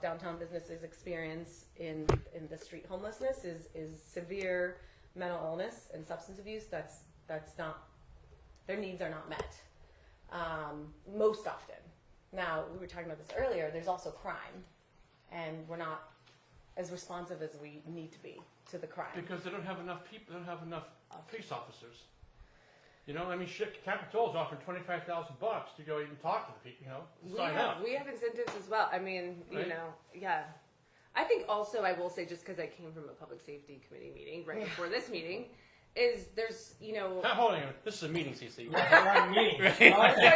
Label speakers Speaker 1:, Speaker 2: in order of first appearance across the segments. Speaker 1: downtown businesses experience in, in the street homelessness is, is severe mental illness and substance abuse. That's, that's not, their needs are not met um, most often. Now, we were talking about this earlier, there's also crime, and we're not as responsive as we need to be to the crime.
Speaker 2: Because they don't have enough people, they don't have enough uh, police officers. You know, I mean, shit, Capitol's offering twenty-five thousand bucks to go even talk to the people, you know,
Speaker 1: We
Speaker 2: sign
Speaker 1: have,
Speaker 2: up.
Speaker 1: we have incentives as well. I mean, you
Speaker 2: Right?
Speaker 1: know, yeah.
Speaker 3: I think also I will say just because I came from a public safety committee meeting right before this meeting, is there's you know.
Speaker 2: Not holding it, this is a meeting, CC.
Speaker 4: Right, meeting.
Speaker 3: Sorry,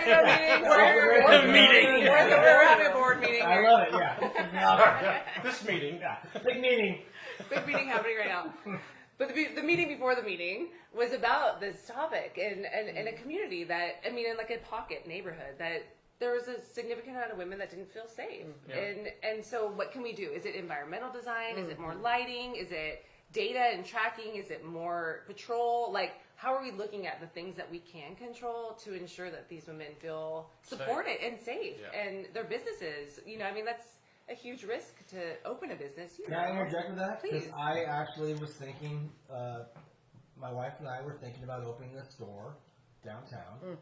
Speaker 3: no meetings. We're-
Speaker 2: The
Speaker 3: we're-
Speaker 2: meeting.
Speaker 3: We're, we're having a board meeting.
Speaker 4: I love it. Yeah.
Speaker 2: This meeting,
Speaker 4: yeah. Big meeting.
Speaker 3: Big meeting happening right now. But the, be- the meeting before the meeting was about this topic and, and, and a community that, I mean, in like a pocket neighborhood that there was a significant amount of women that didn't feel safe.
Speaker 2: Mm, Yeah.
Speaker 3: And, and so what can we do? Is it environmental design? Is it more
Speaker 2: Mm-hmm.
Speaker 3: lighting? Is it data and tracking? Is it more patrol? Like, how are we looking at the things that we can control to ensure that these women feel supported and safe
Speaker 2: Yeah.
Speaker 3: and their businesses? You know, I mean, that's a huge risk to open a business. You
Speaker 4: Can I
Speaker 3: know.
Speaker 4: interject with that? Because
Speaker 3: Please.
Speaker 4: I actually was thinking, uh, my wife and I were thinking about opening a store downtown.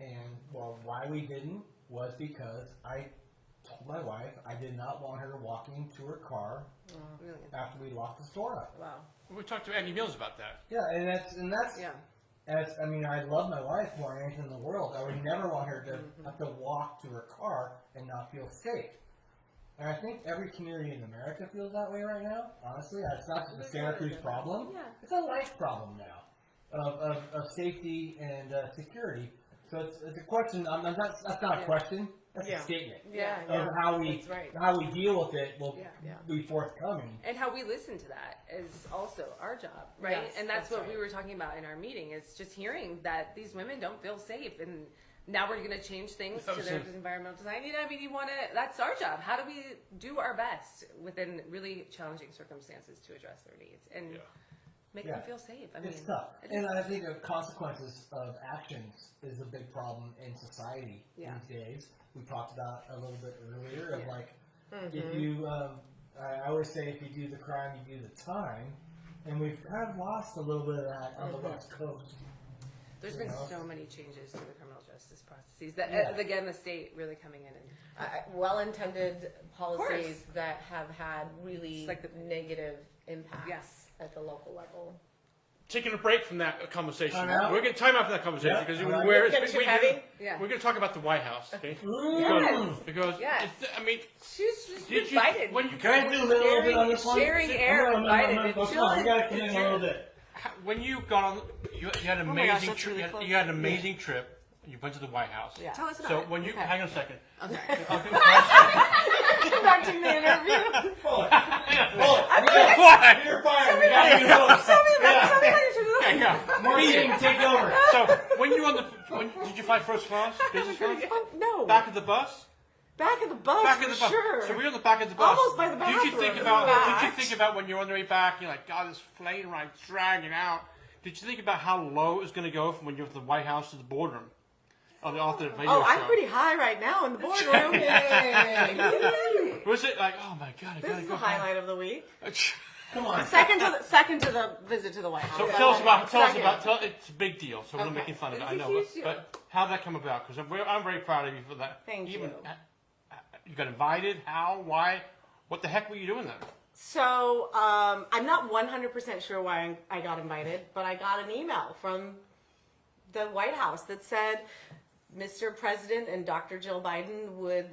Speaker 4: And well, why we didn't was because I told my wife I did not want her walking to her car
Speaker 3: Really.
Speaker 4: after we locked the store up.
Speaker 3: Wow.
Speaker 2: we talked to Andy Mills about that.
Speaker 4: Yeah, and that's and that's
Speaker 3: Yeah.
Speaker 4: As I mean, I love my wife more than anything in the world. I would never want her to
Speaker 1: Mm-hmm.
Speaker 4: have to walk to her car and not feel safe. And I think every community in America feels that way right now. Honestly, it's not just a Santa Cruz problem.
Speaker 3: Yeah.
Speaker 4: It's a life problem now of, of, of safety and uh, security. So it's, it's a question. I'm, I'm not, that's not a
Speaker 3: Yeah.
Speaker 4: question. That's
Speaker 1: Yeah.
Speaker 4: a statement
Speaker 1: Yeah,
Speaker 3: Yeah.
Speaker 1: yeah.
Speaker 4: of how we
Speaker 1: That's right.
Speaker 4: how we deal with it will
Speaker 3: Yeah.
Speaker 1: Yeah.
Speaker 4: be forthcoming.
Speaker 3: And how we listen to that is also our job, right?
Speaker 1: Yes,
Speaker 3: and that's,
Speaker 1: that's
Speaker 3: what
Speaker 1: right.
Speaker 3: we were talking about in our meeting is just hearing that these women don't feel safe and now we're going to change things to their
Speaker 2: Absolutely.
Speaker 3: environmental design. You know, I mean, you want to, that's our job. How do we do our best within really challenging circumstances to address their needs and
Speaker 2: Yeah.
Speaker 3: make
Speaker 4: Yeah.
Speaker 3: them feel safe? I mean,
Speaker 4: It's tough,
Speaker 3: it is-
Speaker 4: and I think the consequences of actions is a big problem in society
Speaker 3: Yeah.
Speaker 4: these days. We talked about a little bit earlier of
Speaker 3: Yeah. Mm-hmm.
Speaker 4: like if you, um, I always say if you do the crime, you do the time, and we've kind of lost a little bit of that on
Speaker 3: Mm-hmm.
Speaker 4: the west coast.
Speaker 3: there's
Speaker 4: you
Speaker 3: been
Speaker 4: know.
Speaker 3: so many changes to the criminal justice processes that,
Speaker 4: Yeah.
Speaker 3: uh, again, the state really coming in and
Speaker 1: I- well-intended policies
Speaker 3: course.
Speaker 1: that have had really
Speaker 3: It's like the-
Speaker 1: negative impacts
Speaker 3: Yes.
Speaker 1: at the local level.
Speaker 2: Taking a break from that conversation.
Speaker 4: Time out.
Speaker 2: We're gonna time out from that conversation
Speaker 4: Yeah.
Speaker 2: because
Speaker 4: All right.
Speaker 2: we're,
Speaker 1: It's getting
Speaker 2: we-
Speaker 1: too
Speaker 2: we-
Speaker 1: heavy.
Speaker 3: Yeah.
Speaker 2: we're gonna talk about the White House, okay?
Speaker 3: Yes.
Speaker 2: Because,
Speaker 3: Yes.
Speaker 2: it's- I mean,
Speaker 3: she's just
Speaker 2: did you,
Speaker 3: invited.
Speaker 2: when you,
Speaker 4: Can I zoom in a little bit on this one?
Speaker 3: Sharing- sharing air
Speaker 4: I'm
Speaker 3: with
Speaker 4: gonna- I'm
Speaker 3: Biden
Speaker 4: gonna-
Speaker 3: and
Speaker 4: I'm gonna-
Speaker 3: children.
Speaker 4: You gotta come in a little bit.
Speaker 2: when you got on, you, you had an
Speaker 3: my gosh,
Speaker 2: amazing
Speaker 3: that's
Speaker 2: trip.
Speaker 3: really
Speaker 2: you, had,
Speaker 3: close.
Speaker 2: you had an amazing trip. You went to the White House.
Speaker 3: Yeah. Tell us about
Speaker 2: So
Speaker 3: it.
Speaker 2: when you
Speaker 3: Okay.
Speaker 2: hang on a second.
Speaker 3: I'm sorry.
Speaker 1: Conducting the interview.
Speaker 2: Why?
Speaker 4: You're fired. We gotta get close.
Speaker 3: Tell me about your trip.
Speaker 2: Yeah, yeah.
Speaker 4: Maureen, take over.
Speaker 2: So when you were on the, when, did you fly first class, business class,
Speaker 1: Oh, no.
Speaker 2: back of the bus,
Speaker 1: Back of the bus,
Speaker 2: back of the bus? So we were on the back of the bus.
Speaker 1: Almost by the
Speaker 2: Did you think
Speaker 1: bathroom.
Speaker 2: about? Did you
Speaker 1: Fact.
Speaker 2: think about when you're on the way back? You're like, God, this plane ride's dragging out. Did you think about how low it was going to go from when you're at the White House to the boardroom? Oh, the, off the video
Speaker 5: Oh, I'm
Speaker 2: show?
Speaker 5: pretty high right now in the boardroom.
Speaker 2: Was it like, oh my God, I
Speaker 5: This
Speaker 2: gotta
Speaker 5: is
Speaker 2: go
Speaker 5: the highlight of the week.
Speaker 2: back.
Speaker 4: Come on.
Speaker 5: Second to the second to the visit to the White
Speaker 2: So
Speaker 5: House.
Speaker 2: tell us about, tell us
Speaker 5: Second.
Speaker 2: about, tell, it's a big deal, so we're not
Speaker 3: Okay.
Speaker 2: making fun of it,
Speaker 3: It's
Speaker 2: I
Speaker 3: a
Speaker 2: know,
Speaker 3: huge
Speaker 2: but,
Speaker 3: deal.
Speaker 2: but how'd that come about? Because I'm, very- I'm very proud of you for that.
Speaker 5: Thank
Speaker 2: Even,
Speaker 5: you.
Speaker 2: uh, uh, You got invited, how, why, what the heck were you doing then?
Speaker 5: So um, I'm not 100% sure why I got invited, but I got an email from the White House that said, Mr. President and Dr. Jill Biden would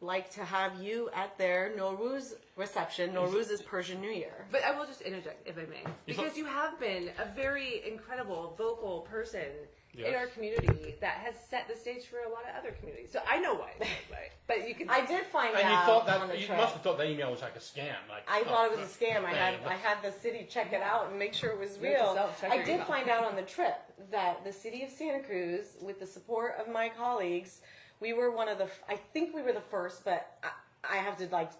Speaker 5: like to have you at their Nowruz reception. Nowruz is Persian New Year.
Speaker 3: But I will just interject, if I may, because you have been a very incredible vocal person in
Speaker 2: Yes.
Speaker 3: our community that has set the stage for a lot of other communities. So I know why, but you can.
Speaker 5: I did find
Speaker 2: And you
Speaker 5: out
Speaker 2: thought
Speaker 5: on the
Speaker 2: that, you
Speaker 5: trip.
Speaker 2: must have thought that email was like a scam, like.
Speaker 5: I
Speaker 2: oh,
Speaker 5: thought it was a
Speaker 2: uh,
Speaker 5: scam. I had
Speaker 2: yeah.
Speaker 5: I had the city check it out and make sure it was
Speaker 3: You have to
Speaker 5: real.
Speaker 3: self-check
Speaker 5: I
Speaker 3: your
Speaker 5: did
Speaker 3: email.
Speaker 5: find out on the trip that the city of Santa Cruz, with the support of my colleagues, we were one of the. f- I think we were the first, but I, I have to like,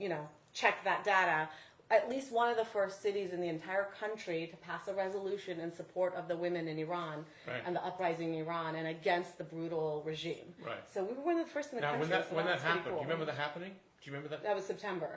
Speaker 5: you know, check that data. At least one of the first cities in the entire country to pass a resolution in support of the women in Iran
Speaker 2: Right.
Speaker 5: and the uprising in Iran and against the brutal regime.
Speaker 2: Right.
Speaker 5: So we were one of the first in the
Speaker 2: Now,
Speaker 5: country.
Speaker 2: when that,
Speaker 5: so
Speaker 2: when that
Speaker 5: was pretty
Speaker 2: happened, do you
Speaker 5: cool.
Speaker 2: remember that happening? Do Do you remember that?
Speaker 5: That was September.